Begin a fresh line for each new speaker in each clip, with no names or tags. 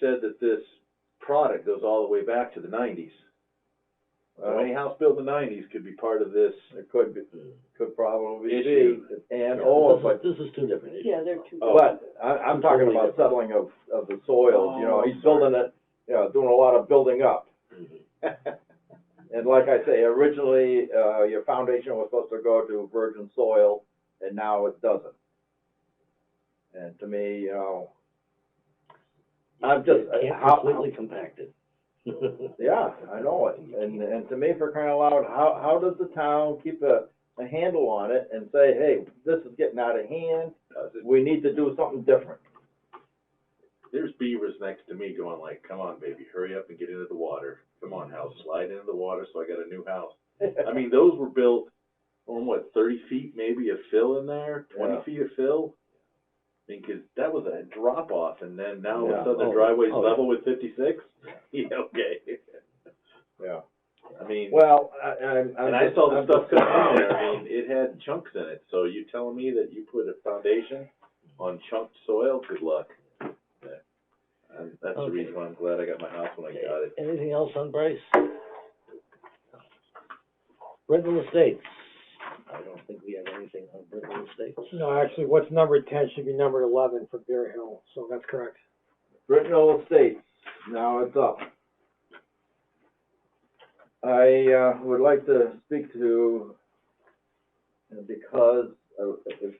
said that this product goes all the way back to the nineties. So any
Well,
house built in the nineties could be part of this.
it could be, could probably be,
Issue.
and
Oh,
or, but,
but this is two different issues.
Yeah, they're two.
Oh.
but I, I'm talking about settling of, of the soils, you know, he's building it, you know, doing a lot of building up.
Mhm.
And like I say, originally, uh, your foundation was supposed to go to virgin soil, and now it doesn't. And to me, you know, I'm just-
It Can't
how-
completely compact it.
yeah, I know it, and, and to me, for crying out loud, how, how does the town keep a, a handle on it and say, hey, this is getting out of hand,
Uh, th-
we need to do something different?
There's beavers next to me going like, come on, baby, hurry up and get into the water. Come on, house, slide into the water, so I got a new house. I mean, those were built on what, thirty feet maybe of fill in there, twenty
Yeah.
feet of fill? I mean, 'cause that was a drop off and then now all of
Yeah.
a sudden
Oh,
the driveway's
oh,
level with fifty-six? Yeah, okay.
Yeah.
I mean,
Well, I, I'm. I'm
and I
just-
saw the
I'm
stuff
just-
coming in there, I mean, it had chunks in it, so you telling me that you put a foundation on chunked soil, good luck. Yeah. And that's the
Okay.
reason why I'm glad I got my house when I got it.
Anything else on Bryce? Brittenell Estates. I don't think we have anything on Brittenell Estates.
No, actually, what's numbered ten should be numbered eleven for Bear Hill, so that's correct.
Brittenell Estates, now it's up. I, uh, would like to speak to, because, uh, if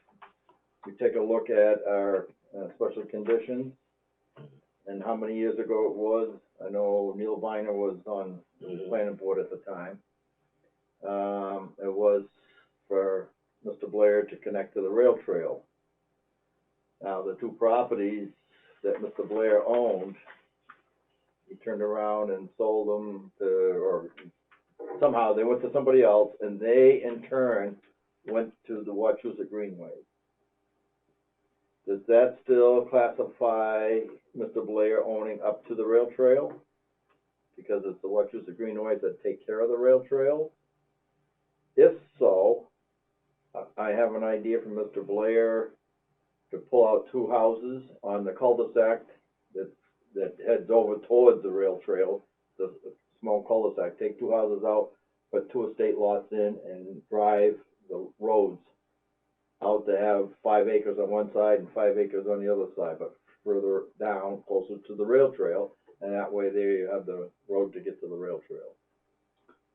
you take a look at our, uh, special conditions and how many years ago it was, I know Neil Viner was on the
Mhm.
planning board at the time. Um, it was for Mr. Blair to connect to the rail trail. Now, the two properties that Mr. Blair owned, he turned around and sold them to, or somehow they went to somebody else, and they in turn went to the Wachusett Greenway. Does that still classify Mr. Blair owning up to the rail trail? Because it's the Wachusett Greenways that take care of the rail trail? If so, I- I have an idea from Mr. Blair to pull out two houses on the cul-de-sac that, that heads over towards the rail trail, the the small cul-de-sac, take two houses out, put two estate lots in and drive the roads out to have five acres on one side and five acres on the other side, but further down, closer to the rail trail, and that way they have the road to get to the rail trail.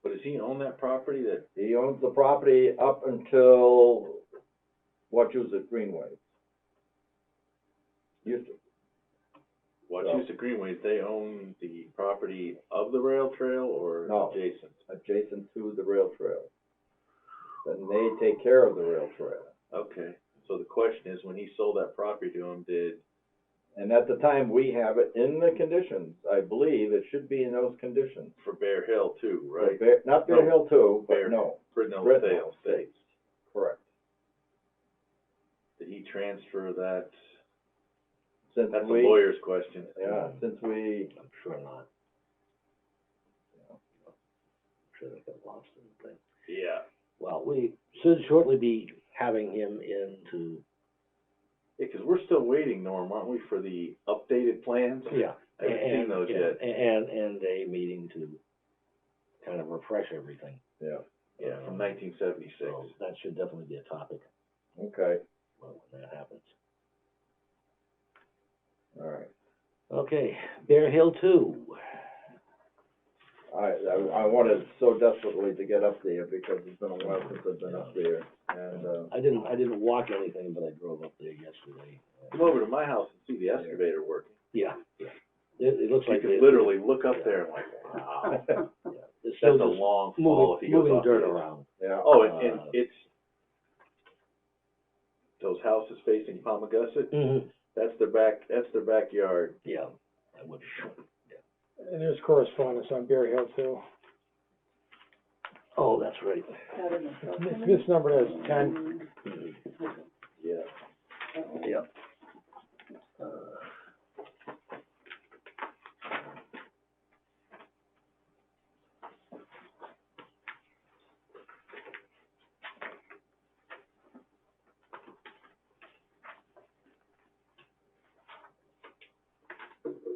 But does he own that property that,
He owns the property up until what was it, Greenway? Used to,
Wachusett Greenways, they own the property of the rail trail or
No.
adjacent?
adjacent to the rail trail. And they take care of the rail trail.
Okay, so the question is, when he sold that property to him, did,
And at the time, we have it in the conditions, I believe it should be in those conditions.
for Bear Hill too, right?
Bear- Not Bear
No.
Hill two,
Bear-
but no,
Brittenell
Brittenell
Sales
Estates.
Estates.
correct.
Did he transfer that?
Since
That's a
we,
lawyer's question.
yeah, since we
I'm sure not. I'm Sure they got lost in the thing.
Yeah.
Well, we should shortly be having him in to,
Yeah, cause we're still waiting, Norm, aren't we, for the updated plans?
yeah.
I haven't seen
and-
those
yeah,
yet.
And, and a meeting to kind of refresh everything.
Yeah,
Yeah, from nineteen seventy-six.
So that should definitely be a topic
okay,
when when that happens.
all right.
Okay, Bear Hill two.
I, I, I wanted so desperately to get up there because it's been a while since I've been up there and, uh,
I didn't, I didn't walk anything, but I drove up there yesterday.
Come over to my house and see the excavator working.
Yeah, yeah. It, it looks
You
like.
could
they-
literally look up there and like, wow,
uh,
yeah, It's
that's a
still just
long fall if
moving,
he goes
moving
off the
dirt
edge.
around.
yeah.
Oh, and, and
Uh,
it's, those houses facing Palmagussit,
Mm-hmm.
that's their back, that's their backyard.
Yeah, I would.
And there's correspondence on Bear Hill too.
Oh, that's right.
Not in the
This,
supplement.
this number is ten.
Mhm.
Yeah.
Yeah. Uh,